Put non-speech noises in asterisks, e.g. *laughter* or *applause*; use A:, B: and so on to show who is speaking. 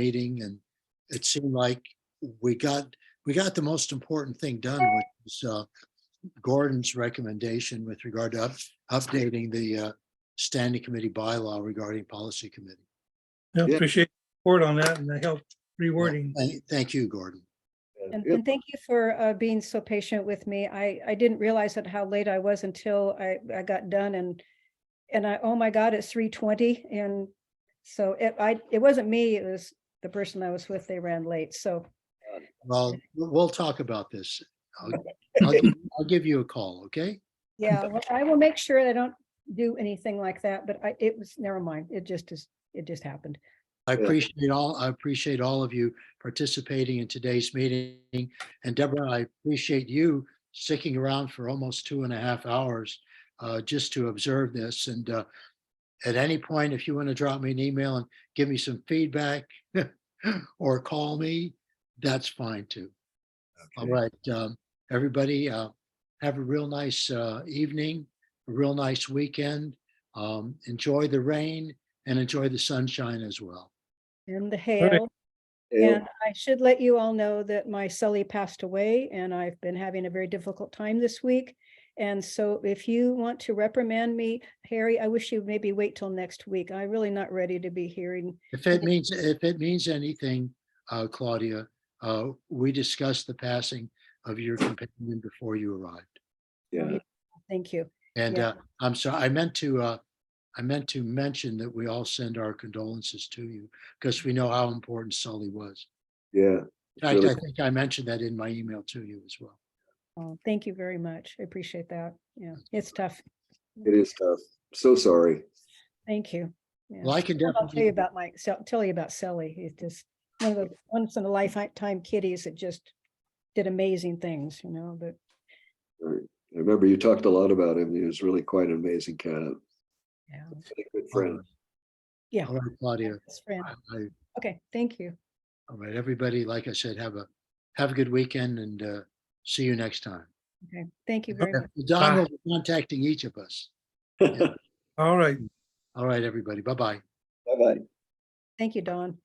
A: meeting and it seemed like we got, we got the most important thing done, which is uh, Gordon's recommendation with regard to up- updating the uh, standing committee bylaw regarding policy committee.
B: I
C: Yeah.
B: appreciate the support on that and the help rewording.
A: Thank- Thank you, Gordon.
D: And,
C: Yep.
D: and thank you for uh, being so patient with me. I, I didn't realize that how late I was until I, I got done and, and I, oh my God, it's three twenty. And so it, I, it wasn't me, it was the person I was with, they ran late. So
A: Well, we'll talk about this. I'll, I'll give- I'll give you a call, okay?
D: yeah, well, I will make sure I don't do anything like that, but I, it was, never mind. It just is, it just happened.
A: I
C: Yeah.
A: appreciate all, I appreciate all of you participating in today's meeting. And Deborah, I appreciate you sticking around for almost two and a half hours uh, just to observe this. And uh, at any point, if you want to drop me an email and give me some feedback *laughs* or call me, that's fine too. All right, um, everybody, uh, have a real nice uh, evening, a real nice weekend. Um, Enjoy the rain and enjoy the sunshine as well.
D: And the hail.
C: Yeah,
D: And I should let you all know that my Sully passed away and I've been having a very difficult time this week. And so if you want to reprimand me, Harry, I wish you maybe wait till next week. I'm really not ready to be hearing.
A: If it means, if it means anything, uh, Claudia, uh, we discussed the passing of your companion before you arrived.
C: yeah.
D: Thank you.
A: And,
D: Yeah.
A: uh, I'm sorry, I meant to, uh, I meant to mention that we all send our condolences to you because we know how important Sully was.
C: yeah.
A: In fact,
C: Really.
A: I think I mentioned that in my email to you as well.
D: Oh, Thank you very much. I appreciate that. Yeah, it's tough.
C: It is tough. So sorry.
D: Thank you. Yeah.
A: Well, I can
D: I'll tell you
A: definitely,
D: about my, so- tell you about Sully. He's just one of the once in a lifetime kitties that just did amazing things, you know, but
C: I remember you talked a lot about him. He was really quite an amazing cat. and
D: yeah.
C: a
A: Oh,
C: Good friend. *laughs*
D: Yeah.
A: all right, Claudia,
D: best friend.
A: I, I-
D: Okay, thank you.
A: all right, everybody, like I said, have a, have a good weekend and, uh, see you next time.
D: Okay, thank you very much.
A: Don will be contacting each of us.
C: Bye-bye.
B: All right.
A: All right, everybody. Bye-bye.
D: Thank you, Dawn.